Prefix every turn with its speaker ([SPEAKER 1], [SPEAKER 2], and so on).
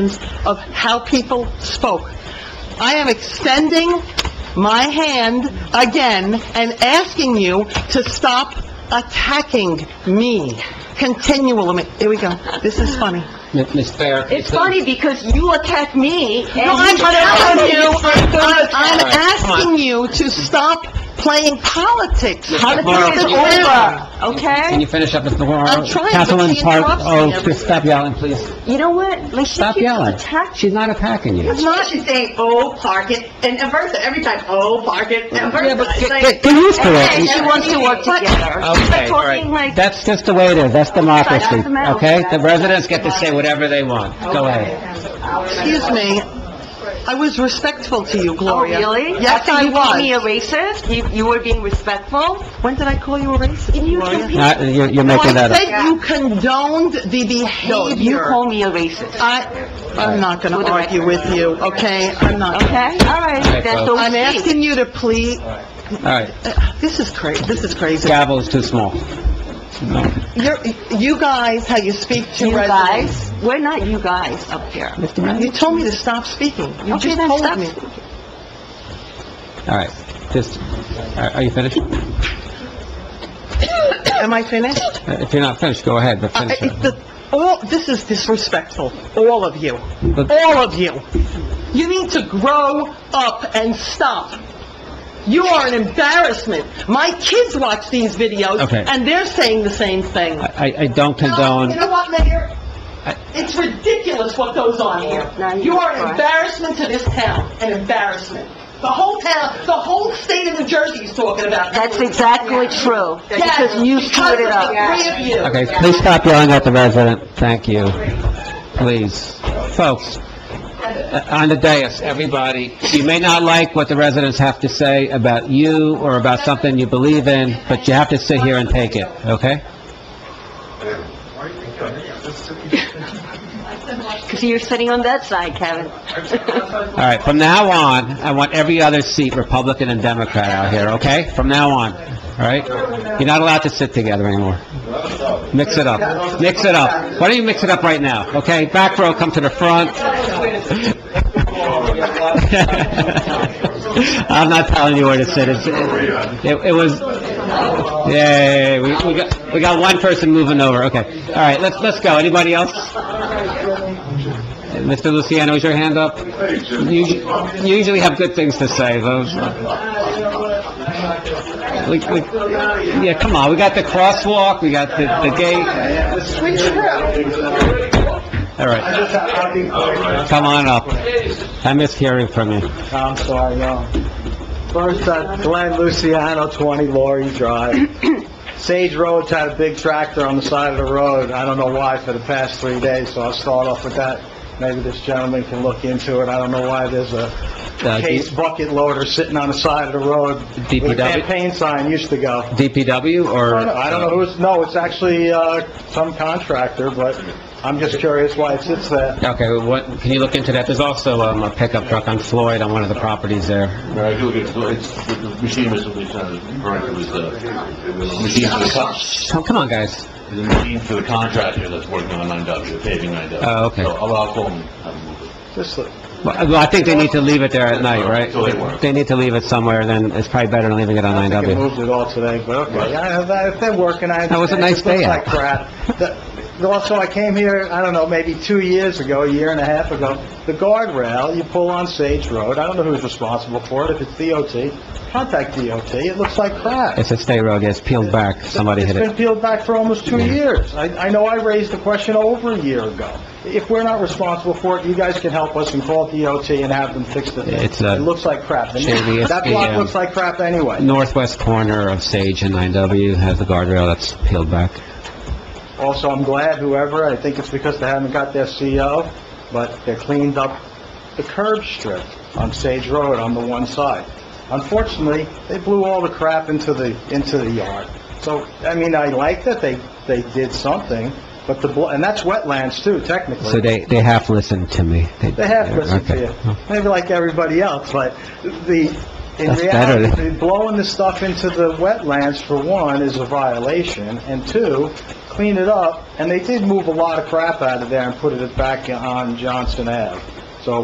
[SPEAKER 1] terms of how people spoke. I am extending my hand again and asking you to stop attacking me continually. Here we go. This is funny.
[SPEAKER 2] Mi- Ms. Fair.
[SPEAKER 3] It's funny because you attack me and you
[SPEAKER 1] No, I'm
[SPEAKER 3] attack
[SPEAKER 1] telling you,
[SPEAKER 3] me.
[SPEAKER 1] I'm I'm
[SPEAKER 2] All right, come on.
[SPEAKER 1] asking you to stop playing politics.
[SPEAKER 2] Laura,
[SPEAKER 1] Politics
[SPEAKER 3] It's
[SPEAKER 1] is
[SPEAKER 2] can you-
[SPEAKER 3] over,
[SPEAKER 1] okay?
[SPEAKER 2] Can you finish up, Ms. Navarro?
[SPEAKER 1] I'm trying, but
[SPEAKER 2] Councilman
[SPEAKER 1] she
[SPEAKER 2] Park,
[SPEAKER 1] interrupts me
[SPEAKER 2] oh,
[SPEAKER 1] every-
[SPEAKER 2] just stop yelling, please.
[SPEAKER 3] You know what? Like, she
[SPEAKER 2] Stop
[SPEAKER 3] keeps
[SPEAKER 2] yelling.
[SPEAKER 3] attacking.
[SPEAKER 2] She's not attacking you.
[SPEAKER 1] It's not-
[SPEAKER 4] She's saying, "Oh, park it," and and versa, every time, "Oh, park it," and versa.
[SPEAKER 2] Yeah, but
[SPEAKER 4] It's like-
[SPEAKER 2] get get used to
[SPEAKER 3] And
[SPEAKER 2] it.
[SPEAKER 3] she wants to work together. She's
[SPEAKER 2] Okay,
[SPEAKER 3] like
[SPEAKER 2] all
[SPEAKER 3] talking
[SPEAKER 2] right.
[SPEAKER 3] like,
[SPEAKER 2] That's just the way it is. That's democracy,
[SPEAKER 3] That's the matter.
[SPEAKER 2] okay? The residents get to say whatever they want. Go ahead.
[SPEAKER 1] Excuse me. I was respectful to you,
[SPEAKER 3] oh,
[SPEAKER 1] Gloria.
[SPEAKER 3] really?
[SPEAKER 1] Yes,
[SPEAKER 3] After
[SPEAKER 1] I
[SPEAKER 3] you
[SPEAKER 1] was.
[SPEAKER 3] called me a racist, you, you were being respectful?
[SPEAKER 1] When did I call you a racist,
[SPEAKER 3] And you
[SPEAKER 1] Gloria?
[SPEAKER 3] compete-
[SPEAKER 2] Not- You're you're
[SPEAKER 1] No,
[SPEAKER 2] making that
[SPEAKER 1] I
[SPEAKER 2] up.
[SPEAKER 1] said you condoned the
[SPEAKER 3] No, you
[SPEAKER 1] behavior.
[SPEAKER 3] call me a racist,
[SPEAKER 1] I, I'm not going
[SPEAKER 3] For
[SPEAKER 1] to
[SPEAKER 3] the
[SPEAKER 1] argue with you, okay? I'm not.
[SPEAKER 3] okay? All right, that's
[SPEAKER 2] folks.
[SPEAKER 3] what
[SPEAKER 1] I'm asking you to please, uh,
[SPEAKER 2] All right,
[SPEAKER 1] this is cra, this is crazy.
[SPEAKER 2] gavel is too small.
[SPEAKER 1] You're, you guys, how you speak to
[SPEAKER 3] You
[SPEAKER 1] residents.
[SPEAKER 3] guys, we're not you guys up here.
[SPEAKER 2] Mr. Mayor?
[SPEAKER 1] You told me to stop speaking. You
[SPEAKER 3] Okay,
[SPEAKER 1] just
[SPEAKER 3] then
[SPEAKER 1] told
[SPEAKER 3] stop
[SPEAKER 1] me.
[SPEAKER 2] All right, just, are are you finished? Uh,
[SPEAKER 1] Am I finished?
[SPEAKER 2] If you're not finished, go ahead, but
[SPEAKER 1] I-
[SPEAKER 2] finish
[SPEAKER 1] I-
[SPEAKER 2] it.
[SPEAKER 1] Uh, the- All, this is disrespectful, all of you,
[SPEAKER 2] But-
[SPEAKER 1] all of you. You need to grow up and stop. You are an embarrassment. My kids watch these videos,
[SPEAKER 2] Okay.
[SPEAKER 1] and they're saying the same thing.
[SPEAKER 2] I, I don't
[SPEAKER 1] No,
[SPEAKER 2] condone,
[SPEAKER 1] You know what, Mayor?
[SPEAKER 2] I-
[SPEAKER 1] It's ridiculous what goes on
[SPEAKER 3] No,
[SPEAKER 1] here.
[SPEAKER 3] you-
[SPEAKER 1] You are an embarrassment to this town, an embarrassment. The whole town, the whole state of New Jersey is talking about
[SPEAKER 3] That's
[SPEAKER 1] this.
[SPEAKER 3] exactly true,
[SPEAKER 1] Yes,
[SPEAKER 3] because you
[SPEAKER 1] because
[SPEAKER 3] screwed it
[SPEAKER 1] of
[SPEAKER 3] up.
[SPEAKER 1] the three of you.
[SPEAKER 2] okay, please stop yelling at the resident, thank you. Please, folks, uh, on the dais, everybody, you may not like what the residents have to say about you or about something you believe in, but you have to sit here and take it, okay?
[SPEAKER 3] Because you're sitting on that side, Kevin.
[SPEAKER 2] All right, from now on, I want every other seat Republican and Democrat out here, okay? From now on, all right? You're not allowed to sit together anymore. Mix it up. Mix it up. Why don't you mix it up right now, okay? Back row, come to the front. I'm not telling you where to sit. It's, it, it was, yeah, we, we got, we got one person moving over, okay. All right, let's, let's go. Anybody else? Mr. Luciano, is your hand up? You you usually have good things to say, though. We- we- Yeah, come on, we got the crosswalk, we got the, the gate, all right, come on up. I miss hearing from you.
[SPEAKER 5] I'm sorry, no. First, uh, Glenn Luciano, 20 Laurie Drive. Sage Road's had a big tractor on the side of the road, I don't know why, for the past three days, so I'll start off with that. Maybe this gentleman can look into it, I don't know why there's a
[SPEAKER 2] Uh, D-
[SPEAKER 5] case bucket loader sitting on the side of the road.
[SPEAKER 2] DPW?
[SPEAKER 5] Where the Campaign sign used to go.
[SPEAKER 2] DPW, or...
[SPEAKER 5] I don't know who's, no, it's actually, uh, some contractor, but I'm just curious why it sits there.
[SPEAKER 2] Okay, well, what, can you look into that? There's also, um, a pickup truck on Floyd on one of the properties there.
[SPEAKER 6] Mary, do it, do it. It's- the the machine was, was, uh, correct, it was, uh, it was a machine for the con,
[SPEAKER 2] Oh, come on, guys.
[SPEAKER 6] it was a machine for the contractor that's working on nine W, paving nine W.
[SPEAKER 2] Oh, okay.
[SPEAKER 6] So I'll, I'll call him, have him move it.
[SPEAKER 5] Just, uh,
[SPEAKER 2] Well, well, I think they need to leave it there at night, right?
[SPEAKER 6] So they work.
[SPEAKER 2] They need to leave it somewhere, then it's probably better than leaving it on
[SPEAKER 5] I
[SPEAKER 2] nine
[SPEAKER 5] think
[SPEAKER 2] W.
[SPEAKER 5] it moved it all today, but okay. I- I- If they're working, I...
[SPEAKER 2] That was a
[SPEAKER 5] understand.
[SPEAKER 2] nice
[SPEAKER 5] It
[SPEAKER 2] day
[SPEAKER 5] looks
[SPEAKER 2] out.
[SPEAKER 5] like crap. The- Also, I came here, I don't know, maybe two years ago, a year and a half ago, the guardrail, you pull on Sage Road, I don't know who's responsible for it, if it's DOT, contact DOT, it looks like crap.
[SPEAKER 2] It's a state road, yes, peeled back, somebody hit
[SPEAKER 5] It's
[SPEAKER 2] it.
[SPEAKER 5] been peeled back for almost two years. I, I know I raised the question over a year ago. If we're not responsible for it, you guys can help us and call DOT and have them fix the thing.
[SPEAKER 2] It's, uh,
[SPEAKER 5] It looks like crap.
[SPEAKER 2] shady
[SPEAKER 5] That block
[SPEAKER 2] SPM.
[SPEAKER 5] looks like crap anyway.
[SPEAKER 2] Northwest corner of Sage and 9W has a guardrail that's peeled back.
[SPEAKER 5] Also, I'm glad whoever, I think it's because they haven't got their CO, but they cleaned up the curb strip on Sage Road on the one side. Unfortunately, they blew all the crap into the, into the yard. So, I mean, I like that they, they did something, but the, bl- and that's wetlands too, technically.
[SPEAKER 2] So they, they half listened to me.
[SPEAKER 5] They have listened to you,
[SPEAKER 2] Okay.
[SPEAKER 5] maybe like everybody else, but the, in
[SPEAKER 2] That's better.
[SPEAKER 5] reality, blowing the stuff into the wetlands, for one, is a violation, and two, clean it up, and they did move a lot of crap out of there and put it back on Johnson Ave.